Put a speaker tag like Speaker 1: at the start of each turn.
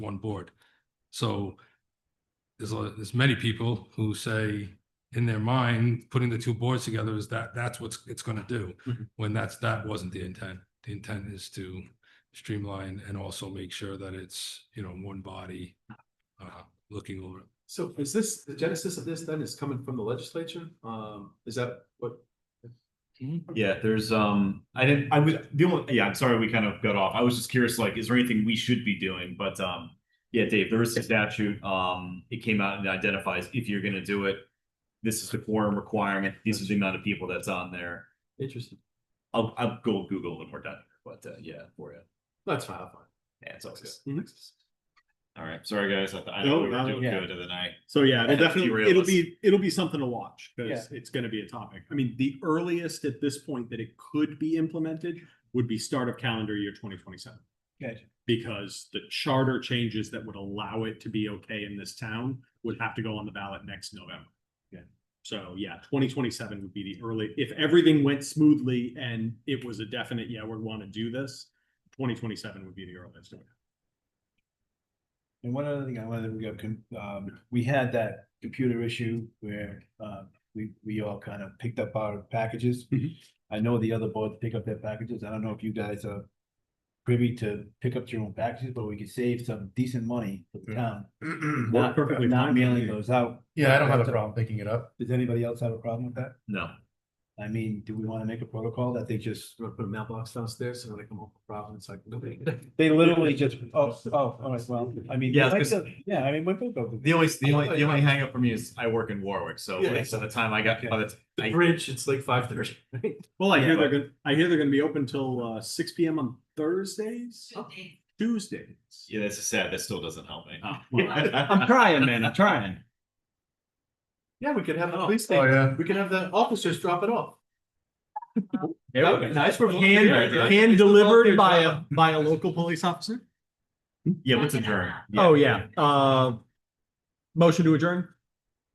Speaker 1: one board. So there's, a- there's many people who say in their mind, putting the two boards together is that, that's what's, it's gonna do.
Speaker 2: Mhm.
Speaker 1: When that's, that wasn't the intent. The intent is to streamline and also make sure that it's, you know, one body uh, looking over. it.
Speaker 2: So is this, the genesis of this then is coming from the legislature? Um, is that what?
Speaker 3: Yeah, there's um, I didn't, I was, the only, yeah, I'm sorry, we kind of got off. I was just curious, like, is there anything we should be doing? But um, yeah, Dave, there is a statute, um, it came out and identifies if you're gonna do it. This is the quorum requirement, this is the amount of people that's on there.
Speaker 2: Interesting.
Speaker 3: I'll, I'll go Google when we're done, but uh, yeah, for you.
Speaker 2: That's fine, Mm-hmm. I'll find
Speaker 3: Yeah, it's always
Speaker 2: it.
Speaker 3: good. All right, sorry, guys, I thought I
Speaker 4: No,
Speaker 3: thought we were
Speaker 4: no,
Speaker 3: doing
Speaker 4: yeah.
Speaker 3: good and then I.
Speaker 4: So yeah, it'll
Speaker 3: Yeah,
Speaker 4: definitely,
Speaker 3: derail
Speaker 4: it'll
Speaker 3: us.
Speaker 4: be, it'll be something to watch because it's gonna be a topic. I mean, the earliest at this point that it could be implemented would be start of calendar year twenty twenty-seven.
Speaker 3: Gotcha.
Speaker 4: Because the charter changes that would allow it to be okay in this town would have to go on the ballot next November.
Speaker 3: Yeah.
Speaker 4: So yeah, twenty twenty-seven would be the early, if everything went smoothly and it was a definite, yeah, we want to do this, twenty twenty-seven would be the earliest.
Speaker 5: And one other thing I wanted to go, con- um, we had that computer issue where, um, we, we all kind of picked up our packages.
Speaker 4: Mhm.
Speaker 5: I know the other boards pick up their packages. I don't know if you guys are privy to pick up your own packages, but we could save some decent money for the town. Not,
Speaker 4: perfectly
Speaker 5: not
Speaker 4: fine.
Speaker 5: mailing those out. uh,
Speaker 6: Yeah, I don't have a problem picking it up.
Speaker 5: Does anybody else have a problem with that?
Speaker 3: No,
Speaker 5: I mean, do we want to make a protocol that they just,
Speaker 2: Do you want to put a mailbox downstairs so when they come home from Providence, it's like, nobody.
Speaker 5: they literally just, oh, oh, all right, well, I mean.
Speaker 3: Yeah,
Speaker 5: like
Speaker 3: because-
Speaker 5: the- Yeah, I mean, we're both of them.
Speaker 3: the only, the only, the only hangup for me is I work in Warwick, so
Speaker 2: Yeah,
Speaker 3: like, by the time I got, by the,
Speaker 2: The
Speaker 3: I-
Speaker 2: bridge, it's like five thirty.
Speaker 4: Well, I
Speaker 3: Yeah,
Speaker 4: hear they're gonna, I hear they're gonna be open till uh six P M on Thursdays, Tuesdays.
Speaker 3: yeah, that's sad, that still doesn't help me.
Speaker 4: Oh, well,
Speaker 5: I'm trying, man, I'm trying.
Speaker 2: Yeah, we could have the
Speaker 4: Oh.
Speaker 2: police
Speaker 6: Oh,
Speaker 2: station,
Speaker 6: yeah.
Speaker 2: we could have the officers drop it off.
Speaker 3: Yeah,
Speaker 2: That would be nice. We're
Speaker 3: Hand-
Speaker 2: volunteering, right?
Speaker 4: Hand delivered by a,
Speaker 2: job.
Speaker 4: by a local police officer?
Speaker 3: Yeah, let's adjourn.
Speaker 4: Oh, yeah, uh. Motion to adjourn?